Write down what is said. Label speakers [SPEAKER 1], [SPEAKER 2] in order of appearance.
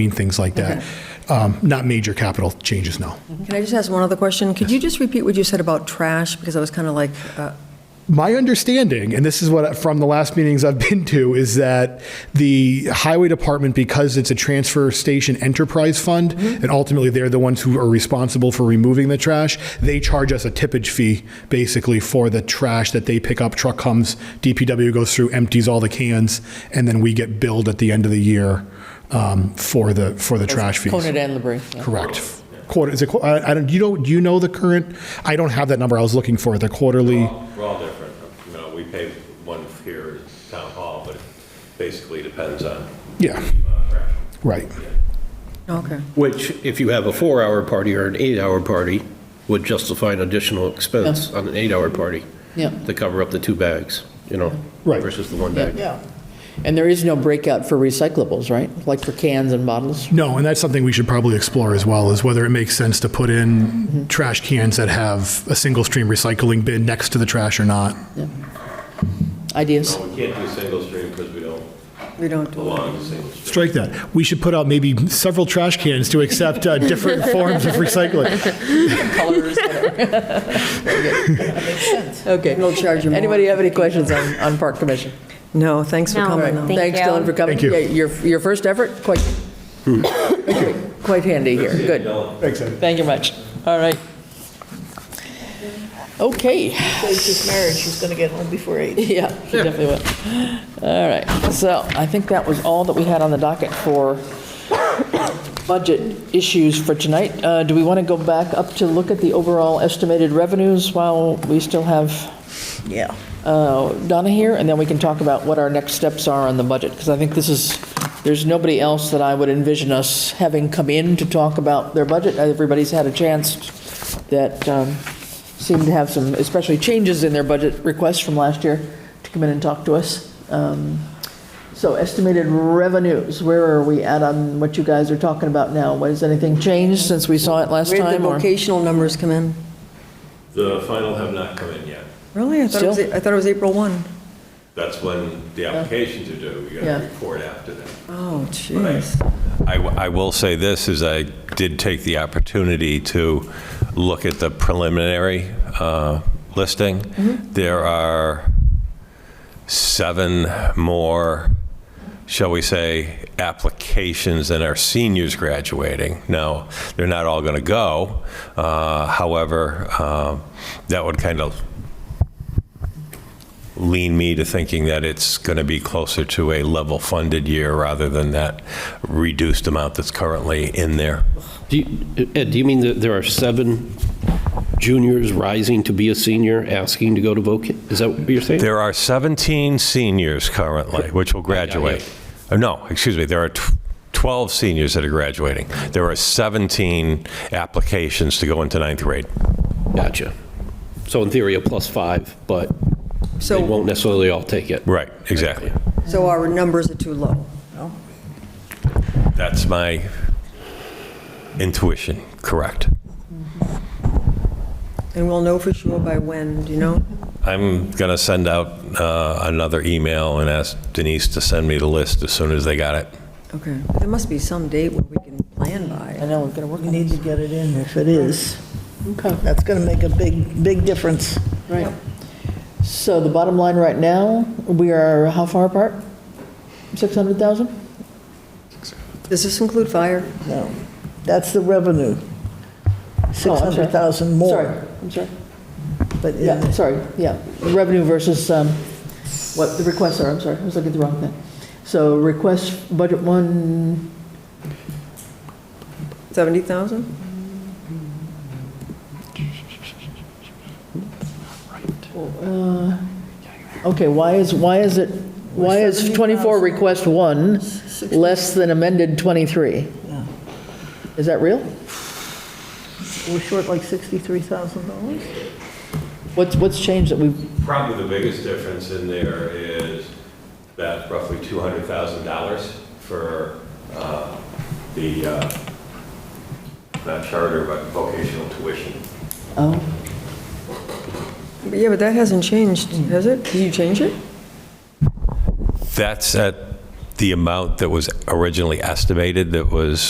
[SPEAKER 1] mean, things like that. Um, Not major capital changes, no.
[SPEAKER 2] Can I just ask one other question? Could you just repeat what you said about trash? Because I was kind of like, uh,
[SPEAKER 1] My understanding, and this is what from the last meetings I've been to, is that the highway department, because it's a transfer station enterprise fund, and ultimately they're the ones who are responsible for removing the trash, they charge us a tippage fee basically for the trash that they pick up. Truck comes, DPW goes through, empties all the cans, and then we get billed at the end of the year um, for the for the trash fees.
[SPEAKER 3] Conant and Labrie. yeah.
[SPEAKER 1] Correct. Quarter, is it, qu- I I don't, you don't, do you know the current? I don't have that number. I was looking for it, the quarterly.
[SPEAKER 4] We're all different. You know, we pay one here at Town Hall, but it basically depends on.
[SPEAKER 1] Yeah, right.
[SPEAKER 2] okay.
[SPEAKER 5] Which, if you have a four-hour party or an eight-hour party, would justify an additional expense on an eight-hour party
[SPEAKER 3] Yeah.
[SPEAKER 5] to cover up the two bags, you know?
[SPEAKER 1] Right.
[SPEAKER 5] Versus the one
[SPEAKER 3] Yeah.
[SPEAKER 5] bag.
[SPEAKER 3] Yeah. And there is no breakout for recyclables, right? Like for cans and bottles?
[SPEAKER 1] No, and that's something we should probably explore as well, is whether it makes sense to put in trash cans that have a single stream recycling bin next to the trash or not.
[SPEAKER 3] Ideas?
[SPEAKER 4] We can't do single stream because we don't
[SPEAKER 2] We don't do it.
[SPEAKER 4] belong to single stream.
[SPEAKER 1] Strike that. We should put out maybe several trash cans to accept uh, different forms of recycling.
[SPEAKER 3] Colors, Okay.
[SPEAKER 2] We'll charge you more.
[SPEAKER 3] Anybody have any questions on, on Park Commission?
[SPEAKER 2] No, thanks for
[SPEAKER 6] No,
[SPEAKER 2] coming.
[SPEAKER 6] thank
[SPEAKER 2] though.
[SPEAKER 3] Thanks,
[SPEAKER 6] you.
[SPEAKER 3] Dylan, for coming.
[SPEAKER 1] Thank you.
[SPEAKER 3] Yeah, Your, your first effort, quite, quite handy here, good.
[SPEAKER 1] Thanks, Ed.
[SPEAKER 3] Thank you much. All right. Okay,
[SPEAKER 7] saves his marriage, he's going to get home before eight.
[SPEAKER 3] yeah, he definitely will. All right, so I think that was all that we had on the docket for budget issues for tonight. Uh, Do we want to go back up to look at the overall estimated revenues while we still have
[SPEAKER 7] Yeah.
[SPEAKER 3] uh, Donna here? And then we can talk about what our next steps are on the budget, because I think this is, there's nobody else that I would envision us having come in to talk about their budget. Everybody's had a chance that um, seemed to have some, especially changes in their budget requests from last year, to come in and talk to us. Um, So estimated revenues, where are we at on what you guys are talking about now? Has anything changed since we saw it last
[SPEAKER 2] Where did the
[SPEAKER 3] time? or-
[SPEAKER 2] vocational numbers come in?
[SPEAKER 4] The final have not come in yet.
[SPEAKER 2] Really? I thought it was,
[SPEAKER 3] Still?
[SPEAKER 2] I thought it was April 1.
[SPEAKER 4] That's when the applications are due. You got
[SPEAKER 3] Yeah.
[SPEAKER 4] to report after that.
[SPEAKER 2] Oh, jeez.
[SPEAKER 4] I, w- I will say this, is I did take the opportunity to look at the preliminary uh, listing. There are seven more, shall we say, applications than our seniors graduating. Now, they're not all going to go. uh, However, um, that would kind of lean me to thinking that it's going to be closer to a level-funded year rather than that reduced amount that's currently in there.
[SPEAKER 5] Do you- Ed, do you mean that there are seven juniors rising to be a senior, asking to go to voc, is that what you're saying?
[SPEAKER 4] There are 17 seniors currently, which will graduate. Uh, No, excuse me, there are tw- 12 seniors that are graduating. There are 17 applications to go into ninth grade.
[SPEAKER 5] Gotcha. So in theory, a plus five, but they
[SPEAKER 2] So,
[SPEAKER 5] won't necessarily all take it.
[SPEAKER 4] Right, exactly.
[SPEAKER 2] so our numbers are too low.
[SPEAKER 4] That's my intuition, correct.
[SPEAKER 2] And we'll know for sure by when, do you know?
[SPEAKER 4] I'm going to send out uh, another email and ask Denise to send me the list as soon as they got it.
[SPEAKER 2] Okay. There must be some date where we can plan
[SPEAKER 3] I
[SPEAKER 2] by.
[SPEAKER 3] know, we're going to work
[SPEAKER 7] We
[SPEAKER 3] on it.
[SPEAKER 7] need to get it in if it is.
[SPEAKER 3] Okay.
[SPEAKER 7] That's going to make a big, big difference.
[SPEAKER 3] Right. So the bottom line right now, we are how far apart? 600,000?
[SPEAKER 2] Does this include fire?
[SPEAKER 7] No, that's the revenue. Oh, 600,000
[SPEAKER 3] Sorry,
[SPEAKER 7] more.
[SPEAKER 3] I'm sorry.
[SPEAKER 7] But in
[SPEAKER 3] Yeah,
[SPEAKER 7] the-
[SPEAKER 3] sorry, yeah. Revenue versus um, what the requests are, I'm sorry, I was looking at the wrong thing. So request, budget one,
[SPEAKER 2] 70,000?
[SPEAKER 3] okay, why is, why is it, why is 24 request one less than amended 23?
[SPEAKER 7] Yeah.
[SPEAKER 3] Is that real?
[SPEAKER 7] we're short like $63,000?
[SPEAKER 3] What's, what's changed that we've,
[SPEAKER 4] Probably the biggest difference in there is that roughly $200,000 for uh, the, uh, not charter, but vocational tuition.
[SPEAKER 3] oh,
[SPEAKER 2] Yeah, but that hasn't changed, has it? Did you change it?
[SPEAKER 4] That's at the amount that was originally estimated that was